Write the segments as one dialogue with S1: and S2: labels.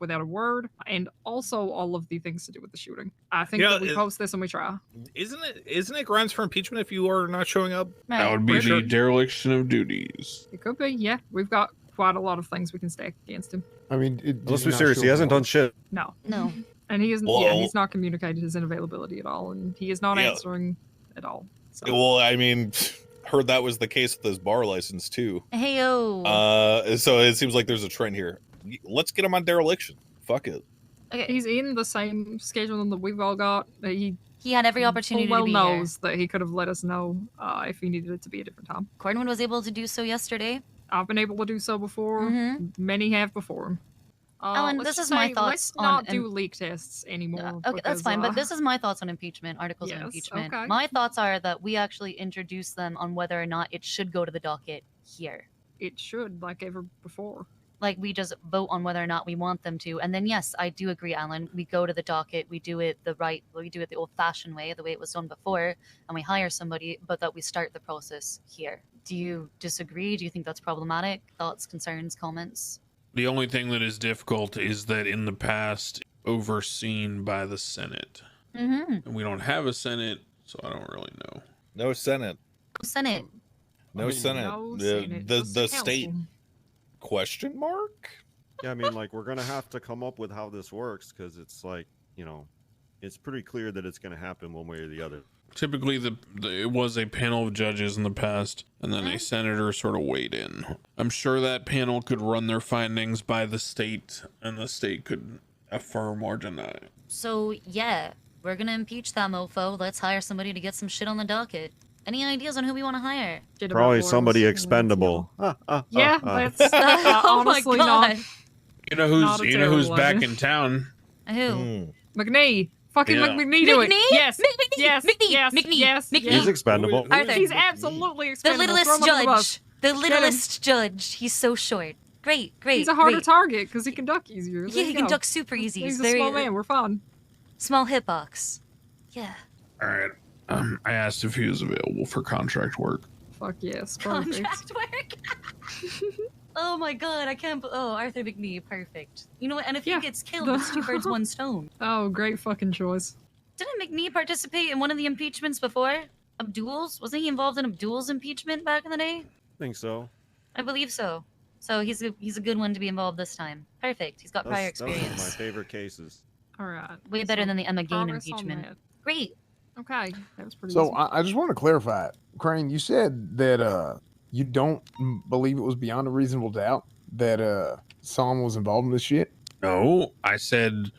S1: without a word, and also all of the things to do with the shooting. I think
S2: You know,
S1: that we
S2: it-
S1: post this and we try.
S2: Isn't it? Isn't it grounds for impeachment if you are not showing up?
S1: Matt,
S3: That would be
S1: we're-
S3: the dereliction of duties.
S1: It could be, yeah. We've got quite a lot of things we can stack against him.
S4: I mean, it,
S5: Let's be serious. He hasn't done shit.
S1: No,
S6: No.
S1: and he isn't. Yeah,
S2: Well-
S1: he's not communicated his inavailability at all, and he is not
S2: Yeah.
S1: answering at all. So
S5: Well, I mean, heard that was the case with his bar license too.
S6: Hey,
S2: Hmm.
S6: oh.
S5: Uh, so it seems like there's a trend here. Let's get him on dereliction. Fuck it.
S6: okay.
S1: he's in the same schedule that we've all got. that He
S6: He had every
S1: full
S6: opportunity
S1: well
S6: to be here.
S1: knows that he could have let us know uh, if he needed it to be a different time.
S6: Cornwood was able to do so yesterday.
S1: I've been able to do so before.
S6: hmm
S1: Many have before him. Uh,
S6: Ellen,
S1: let's
S6: this
S1: just
S6: is my
S1: say,
S6: thoughts
S1: Let's
S6: on
S1: not
S6: an-
S1: do leak tests anymore.
S6: Uh, okay, that's
S1: because,
S6: fine.
S1: uh,
S6: But this is my thoughts on impeachment, articles
S1: Yes,
S6: of impeachment.
S1: okay.
S6: My thoughts are that we actually introduce them on whether or not it should go to the docket here.
S1: it should like ever before.
S6: Like we just vote on whether or not we want them to. And then yes, I do agree, Alan. We go to the docket, we do it the right we do it the old fashioned way, the way it was done before, and we hire somebody, but that we start the process here. Do you disagree? Do you think that's problematic? Thoughts, concerns, comments?
S3: The only thing that is difficult is that in the past, overseen by the Senate.
S6: Mm-hmm.
S3: And we don't have a Senate, so I don't really know.
S5: No senate.
S6: Senate.
S5: No
S4: I mean,
S5: senate.
S1: No
S5: the
S1: Senate,
S5: the,
S1: just
S5: the
S1: council.
S5: state question mark.
S4: Yeah, I mean, like we're gonna have to come up with how this works because it's like you know, it's pretty clear that it's gonna happen one way or the other.
S3: Typically, the, the it was a panel of judges in the past, and
S1: Mm-hmm.
S3: then a senator sort of weighed in. I'm sure that panel could run their findings by the state, and the state could affirm or deny.
S6: So yeah, we're gonna impeach that mofo. Let's hire somebody to get some shit on the docket. Any ideas on who we want to hire?
S1: Legitimate
S4: Probably
S1: boards,
S4: somebody
S1: you know,
S4: expendable. Ah, ah,
S1: it's, you know. Yeah,
S4: ah, ah.
S1: that's
S6: Oh
S1: uh, honestly not.
S3: You know
S1: Not
S3: who's
S1: a
S3: you know who's
S1: terrible
S3: back
S1: idea.
S3: in town.
S6: Who?
S5: Hmm.
S1: McNee, fucking
S3: Yeah.
S1: McNee, do it.
S6: McNee?
S1: Yes,
S6: McNee,
S1: yes,
S6: McNee,
S1: yes,
S6: McNee,
S1: yes,
S6: McNee.
S1: yes.
S4: He's expendable.
S5: Who is-
S6: Arthur.
S5: who is
S1: He's
S5: McNee?
S1: absolutely
S6: The
S1: expendable. Throw
S6: littlest
S1: him under the bus.
S6: judge. The
S1: him.
S6: littlest judge. He's so short. Great, great.
S1: He's a harder
S6: great.
S1: target because he can duck easier. There
S6: Yeah, he
S1: you
S6: can
S1: go.
S6: duck super easy.
S1: He's
S6: He's,
S1: a
S6: very
S1: small man. We're fine.
S6: small hitbox. Yeah.
S3: All right. Um, I asked if he was available for contract work.
S1: Fuck yes, perfect.
S6: Contract work. oh my god, I can't. b- Oh, Arthur McNee, perfect. You know what? And if
S1: Yeah.
S6: he gets killed, it's two birds, one stone.
S1: Oh, great fucking choice.
S6: Didn't McNee participate in one of the impeachments before? Abdul's? Wasn't he involved in Abdul's impeachment back in the day?
S4: I think so.
S6: I believe so. So he's a, he's a good one to be involved this time. Perfect. He's got prior
S4: That's, that's one of my
S6: experience.
S4: favorite cases.
S1: All right.
S6: Way better
S1: so
S6: than the Emma Gain
S1: progress on
S6: impeachment. Great.
S1: that. Okay, that was pretty.
S7: So
S4: uh,
S1: easy.
S7: I, I just want to clarify, Crane. You said that uh, you don't m- believe it was beyond a reasonable doubt that uh, Psalm was involved in this shit.
S3: No, I said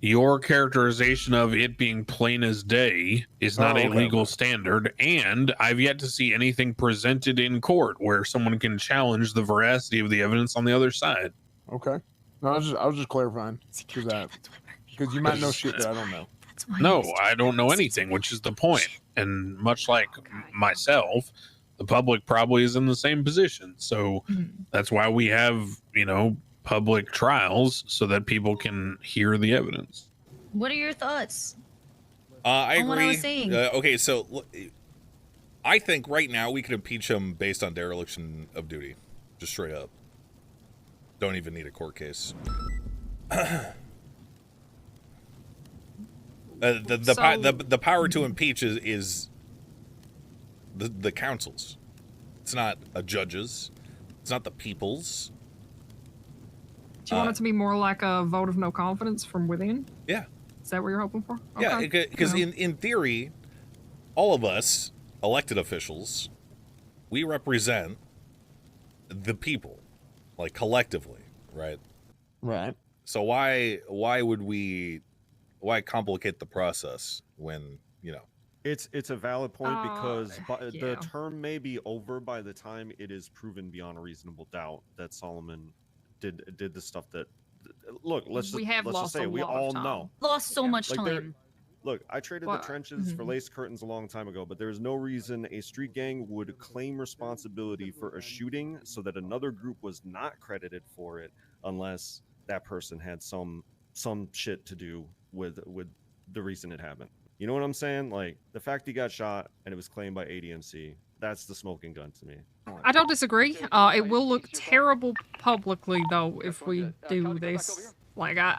S3: your characterization of it being plain as day is not
S7: Oh,
S3: a
S7: okay.
S3: legal standard, and I've yet to see anything presented in court where someone can challenge the veracity of the evidence on the other side.
S7: Okay. No, I was just I was just clarifying
S6: See,
S7: Who's
S6: goddamn,
S7: that?
S6: that's why Murphy
S7: because you
S6: won.
S7: might know shit that I don't know.
S6: That's why
S3: No,
S6: Murphy
S3: I don't know
S6: won.
S3: anything, which is the point. And much like
S6: Okay.
S3: myself, the public probably is in the same position. So
S1: Mhm.
S3: that's why we have, you know, public trials so that people can hear the evidence.
S6: What are your thoughts?
S5: Uh, I
S6: On
S5: agree.
S6: what I was saying.
S5: Uh, okay, so l- I think right now we could impeach him based on dereliction of duty, just straight up. Don't even need a court case. Uh, the, the, po-
S1: So-
S5: the the power to impeach is, is the the council's. It's not a judge's. It's not the people's.
S1: Do you want it to be more like a vote of no confidence from within?
S5: Yeah.
S1: Is that what you're hoping for?
S5: Yeah,
S1: Okay.
S5: because
S1: Well,
S5: in, in theory, all of us elected officials, we represent the people, like collectively, right?
S7: Right.
S5: So why why would we why complicate the process when you know?
S4: It's it's a valid point
S1: Uh,
S4: because bu-
S1: yeah.
S4: the term may be over by the time it is proven beyond a reasonable doubt that Solomon did did the stuff that. Look, let's just,
S1: We have
S4: let's
S1: lost
S4: just say
S1: a
S4: it. we
S1: lot of
S4: all
S1: time.
S4: know.
S6: Lost so
S1: Yeah.
S6: much
S4: Like, they're-
S6: time.
S4: Look, I traded
S1: Well,
S4: the trenches for
S1: mhm.
S4: lace curtains a long time ago, but there is no reason a street gang would claim responsibility for a shooting so that another group was not credited for it unless that person had some some shit to do with with the reason it happened. You know what I'm saying? Like the fact he got shot and it was claimed by ADMC, that's the smoking gun to me.
S1: I don't disagree. Uh, it will look terrible publicly though if we do this Like I,